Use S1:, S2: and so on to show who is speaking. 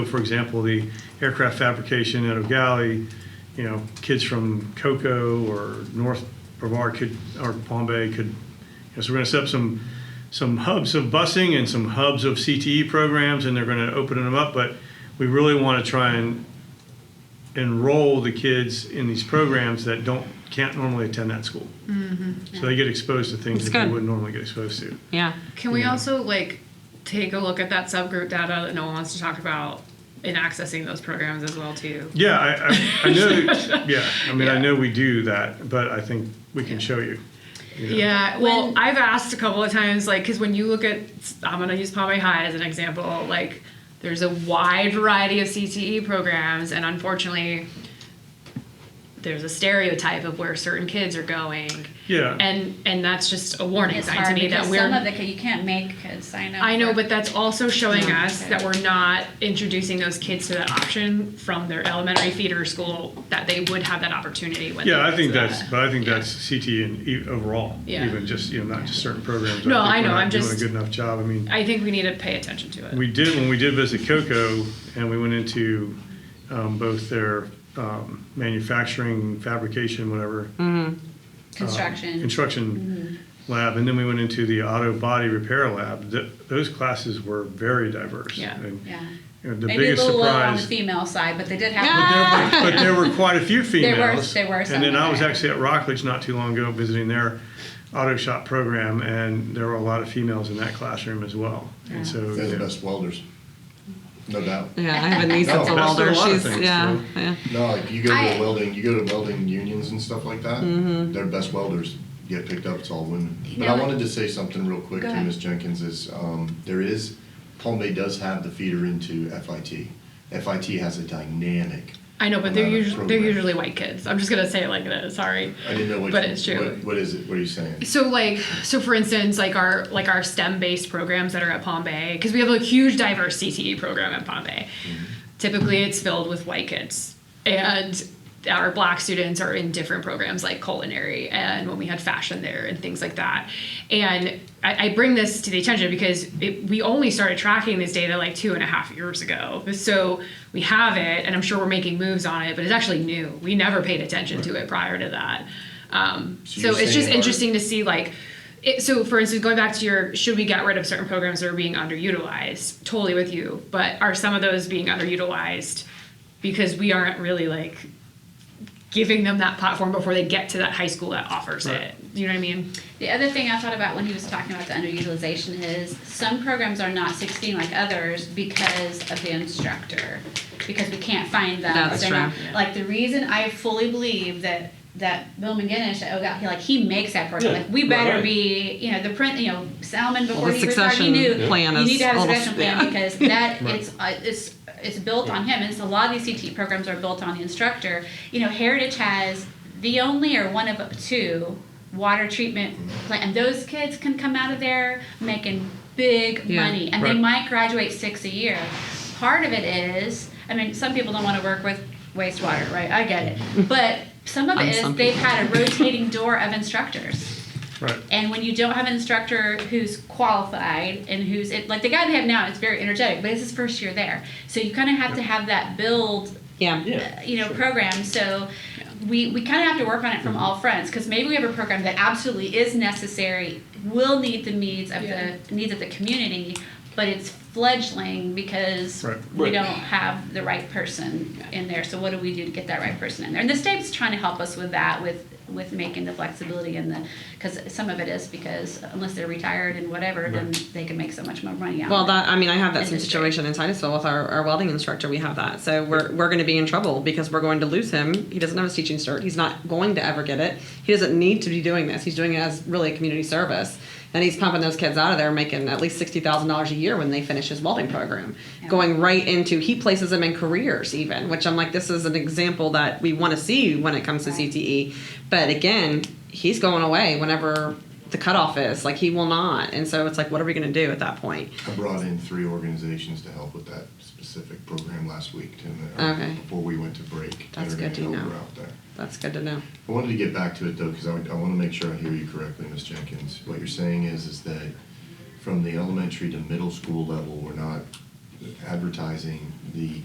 S1: For example, the aircraft fabrication at O'Galley, you know, kids from Cocoa or North Brevard could, or Palm Bay could, you know, so we're going to set up some, some hubs of busing and some hubs of CTE programs, and they're going to open them up, but we really want to try and enroll the kids in these programs that don't, can't normally attend that school. So they get exposed to things
S2: Mm-hmm. That's
S1: that they
S2: good.
S1: wouldn't normally get exposed to.
S2: Yeah.
S3: Can we also like take a look at that subgroup data that no one wants to talk about in accessing those programs as well too?
S1: Yeah, I, I, I know. yeah, I mean, I know we do that, but I think we can show you.
S3: Yeah. well, I've asked a couple of times, like, because when you look at, I'm gonna use Palm Bay High as an example. Like, there's a wide variety of CTE programs, and unfortunately, there's a stereotype of where certain kids are going,
S1: Yeah,
S3: and and that's just a warning
S4: It's
S3: sign to
S4: hard
S3: me
S4: because
S3: that we're
S4: some of the you can't make kids sign up.
S3: I know,
S4: for-
S3: but that's also showing us
S4: okay.
S3: that we're not introducing those kids to that option from their elementary feeder school that they would have that opportunity when.
S1: yeah,
S3: they
S1: I
S3: get
S1: think
S3: to that.
S1: that's, but I think that's CT and e- overall,
S3: Yeah.
S1: even just you know, not just certain programs. think
S3: No, I
S1: we're
S3: know,
S1: not
S3: I'm
S1: doing
S3: just-
S1: a good enough job. I mean,
S3: I think we need to pay attention to it.
S1: we did when we did visit Coco, and we went into um, both their um, manufacturing, fabrication, whatever.
S3: uh,
S4: construction.
S1: construction lab, and then we went into the auto body repair lab. Th- Those classes were very diverse.
S3: Yeah.
S1: And,
S4: yeah.
S1: you know, The
S4: Maybe a
S1: biggest
S4: little low on the
S1: surprise,
S4: female side, but they did
S1: but
S4: have.
S1: there, but there were quite a few
S4: were-
S1: females.
S4: Ah. there were some
S1: And then I was
S4: there.
S1: actually at Rockledge not too long ago visiting their auto shop program, and there were a lot of females in that classroom as well. And so,
S5: They're the
S1: yeah.
S5: best welders, no doubt.
S2: Yeah, I have a niece that's
S5: No,
S2: a
S5: that's a
S2: welder.
S1: lot of
S2: She's
S1: things,
S2: yeah,
S1: so-
S2: yeah.
S5: No, like you go to
S4: I-
S5: a welding, you go to welding unions and stuff like that. They're best welders get picked up. It's all women. But I
S4: know,
S5: wanted to say something real quick
S4: Go
S5: to
S4: ahead.
S5: Ms. Jenkins is um, there is Palm Bay does have the feeder into FIT. FIT has a dynamic.
S3: I know, but they're
S5: amount of
S3: usually they're
S5: programs.
S3: usually white kids. I'm just gonna say it like that. Sorry.
S5: I didn't know what.
S3: But
S5: you-
S3: it's true.
S5: What, what is it? What are you saying?
S3: So like so for instance like our like our STEM based programs that are at Palm Bay because we have a huge diverse CTE program at Palm Bay.
S5: Mm-hmm.
S3: Typically it's filled with white kids and our black students are in different programs like culinary and when we had fashion there and things like that. And I, I bring this to the attention because it, we only started tracking this data like two and a half years ago. So we have it and I'm sure we're making moves on it, but it's actually new. We never paid attention to it prior to that. Um,
S5: So
S3: so
S5: you're
S3: it's just
S5: saying our-
S3: interesting to see like it, so for instance going back to your should we get rid of certain programs that are being underutilized totally with you but are some of those being underutilized because we aren't really like giving them that platform before they get to that high school that offers it you know what i mean
S4: The other thing I thought about when he was talking about the underutilization is some programs are not 16 like others because of the instructor, because we can't find them.
S2: That's
S4: They're
S2: true.
S4: not- Like the reason I fully believe that that Bill McGinnis, oh god, he like he makes that program.
S1: Yeah,
S4: Like we
S1: right,
S4: better
S1: right.
S4: be, you know, the print, you know, Salmon before
S2: the
S4: he retired, he
S2: succession
S4: knew
S2: plan
S4: you
S2: is
S4: need to have a
S2: almost-
S4: succession plan
S2: yeah.
S4: because that it's uh, it's it's built on him. And it's a lot of these CTE programs are built on the instructor. You know, Heritage has the only or one of two water treatment plant, and those kids can come out of there making big
S2: Yeah.
S4: money, and
S1: Right.
S4: they might graduate six a year. Part of it is, I mean, some people don't want to work with wastewater, right? I get it, but some of
S2: On
S4: it is
S2: some
S4: they've
S2: people.
S4: had a rotating door of instructors.
S1: Right.
S4: And when you don't have an instructor who's qualified and who's it, like the guy they have now is very energetic, but it's his first year there. So you kind of have to have that build,
S2: Yeah.
S4: uh, you know, program. So we, we kind of have to work on it from all fronts because maybe we have a program that absolutely is necessary, will need the needs of
S3: Yeah.
S4: the needs of the community, but it's fledgling because
S1: Right.
S4: we don't have the right person in there. So what do we do to get that right person in there? And the state's trying to help us with that, with with making the flexibility and the because some of it is because unless they're retired and whatever, then they can make so much more money. Out
S2: Well,
S4: of it.
S2: that I mean, I have that same
S4: Industry.
S2: situation in Titusville with our, our welding instructor. We have that, so we're we're going to be in trouble because we're going to lose him. He doesn't have his teaching cert. He's not going to ever get it. He doesn't need to be doing this. He's doing it as really a community service, and he's pumping those kids out of there, making at least sixty thousand dollars a year when they finish his welding program, going right into he places them in careers even, which I'm like, this is an example that we want to see when it comes to CTE, but again, he's going away whenever. The cutoff is like he will not, and so it's like, what are we going to do at that point?
S5: I brought in three organizations to help with that specific program last week. Tim, uh,
S2: Okay.
S5: Before we went to break.
S2: That's
S5: that are
S2: good to
S5: gonna help
S2: know.
S5: her out there.
S2: That's good to know.
S5: I wanted to get back to it though, because I, I want to make sure I hear you correctly, Ms. Jenkins. What you're saying is, is that from the elementary to middle school level, we're not advertising the